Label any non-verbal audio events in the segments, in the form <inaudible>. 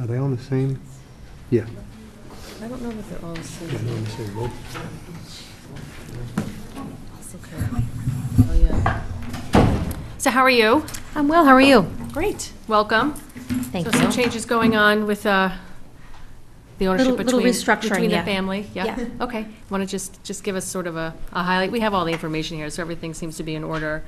Are they on the same? Yeah, I don't know if they're all the same. yeah, they're on the same roll. Okay. Oh, yeah. So how are you? I'm well, how are you? Great. Welcome. Thank So some you. changes going on with uh, the ownership Little- little between, restructuring, between the yeah. family? Yeah. <laughs> Okay. Want to just, just give us sort of a a highlight? We have all the information here, so everything seems to be in order.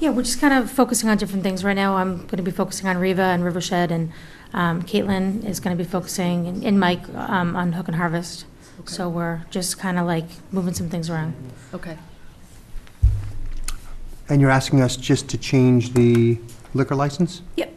Yeah, we're just kind of focusing on different things. Right now, I'm going to be focusing on Riva and Rivershed, and um, Caitlin is going to be focusing, and- and Mike, um, on Hook and Harvest. So we're just kind of like moving some things around. Okay. And you're asking us just to change the liquor license? Yep.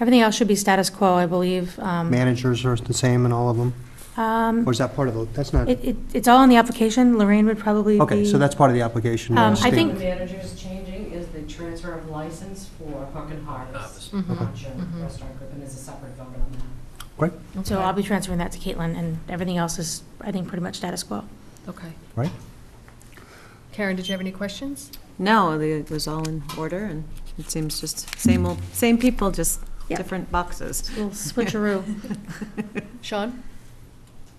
Everything else should be status quo, I believe. Um, Managers are the same in all of them? um, Or is that part of the, that's not, it- it- It's all in the application. Lorraine would probably be... okay, so that's part of the application. uh, Um, I state- think- The manager's changing is the transfer of license for Hook and Harvest. Mhm. Not your Mm-hmm. restaurant group, and there's a separate vote on that. Great, So I'll be transferring that to Caitlin, and everything else is, I think, pretty much status quo. Okay. right? Karen, did you have any questions? No, they- it was all in order, and it seems just same old, same people, just Yeah. different boxes. Little switcheroo. Sean?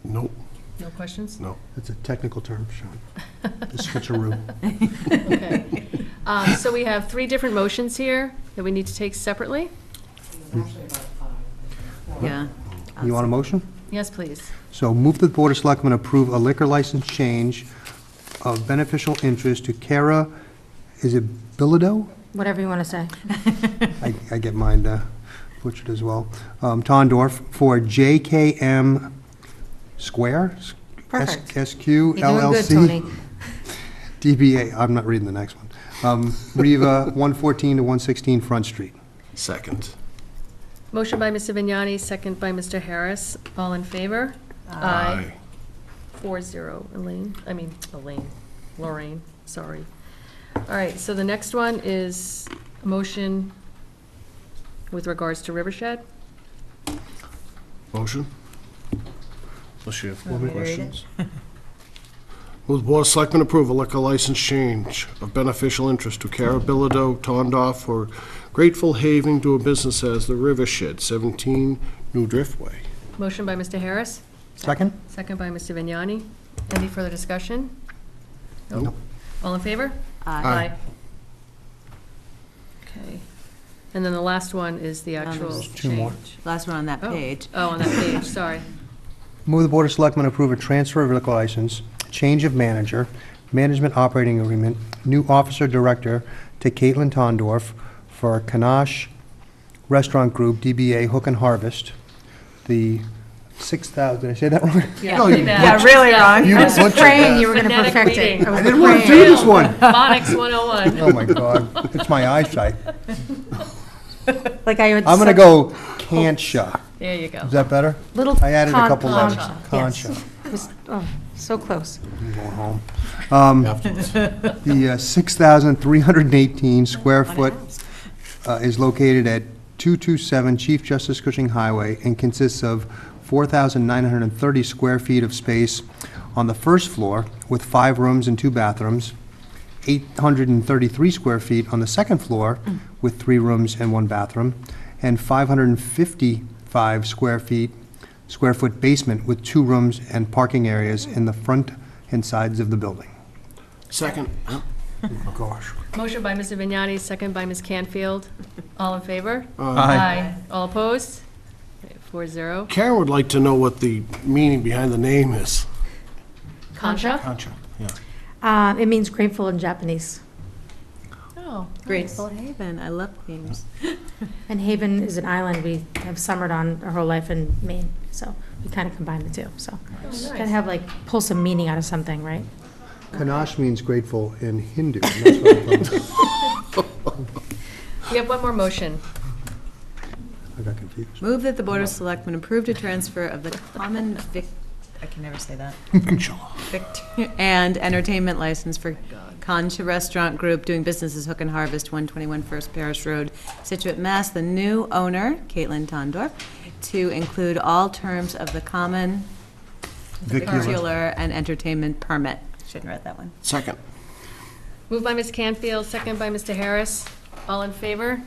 Nope. No questions? No. That's a technical term, <laughs> Sean. The switcheroo. Okay. <laughs> Um, So we have three different motions here that we need to take separately. There's actually about five. I think, four. Yeah. You want a motion? Yes, please. So move that the Board of Selectmen approve a liquor license change of beneficial interest to Cara, is it Bilodeau? Whatever you want to say. I, I get mine uh, butchered as well. Um, Tondorf for JKM Square? S- Perfect. SQ LLC? You're doing good, Tony. DBA, I'm not reading the next one. Um, Riva, <laughs> 114 to 116 Front Street. Second. Motion by Mr. Vignani, second by Mr. Harris. All in favor? Four zero, Elaine, I mean, Elaine, Lorraine, sorry. All right, so the next one is a motion with regards to Rivershed. Motion? Unless you have Want me to read it? <laughs> questions. Will the Board of Selectmen approve a liquor license change of beneficial interest to Cara Bilodeau, Tondoff, for Grateful Haven to a business as the River Shed, 17 New Driftway. Motion by Mr. Harris, Second? second by Mr. Vignani. Any further discussion? Nope. All in favor? Aye. Okay. And then the last one is the actual, there's Two more. Change. Last one on that Oh. page. oh, on that page, sorry. Move the Board of Selectmen approve a transfer of liquor license, change of manager, management operating agreement, new officer director to Caitlin Tondorf for Kanash Restaurant Group, DBA Hook and Harvest, the 6,000, did I say that wrong? No, you- <laughs> Yeah, really wrong. You I was butchered praying that. you were going to Phonetic perfect it. reading. <laughs> was I didn't want to do praying. this one. Phonics <laughs> 101. Oh, my God. It's my eyesight. Like I would. I'm going to go Kansha. There you go. Is that better? Little. I added a con- couple letters. Yes. <laughs> Concha. It was- oh, So close. I'm going home. Um, The uh, 6,318 square foot uh, is located at 227 Chief Justice Cushing Highway and consists of 4,930 square feet of space on the first floor with five rooms and two bathrooms, 833 square feet on the second floor with three rooms and one bathroom, and 555 square feet, square foot basement with two rooms and parking areas in the front and sides of the building. Second. Oh, <laughs> gosh. Motion by Mr. Vignani, second by Ms. Canfield. All in favor? Aye. All opposed? Four zero. Karen would like to know what the meaning behind the name is. Concha? Concha, yeah. Uh, It means grateful in Japanese. Oh. Grateful Haven, I love games. And Haven is an island we have summered on our whole life in Maine, so we kind of combine the two, so. Got to have like, pull some meaning out of something, right? Kanash means grateful in Hindu. and that's what I thought. We have one more motion. I got confused. Move that the Board of Selectmen approved a transfer of the common vic, I can never say that. Victor- And entertainment license for Concha Restaurant Group doing business as Hook and Harvest, 121 First Parish Road, Situate, Mass. The new owner, Caitlin Tondorf, to include all terms of the common vicular and entertainment permit. Shouldn't read that one. Second. Moved by Ms. Canfield, second by Mr. Harris. All in favor?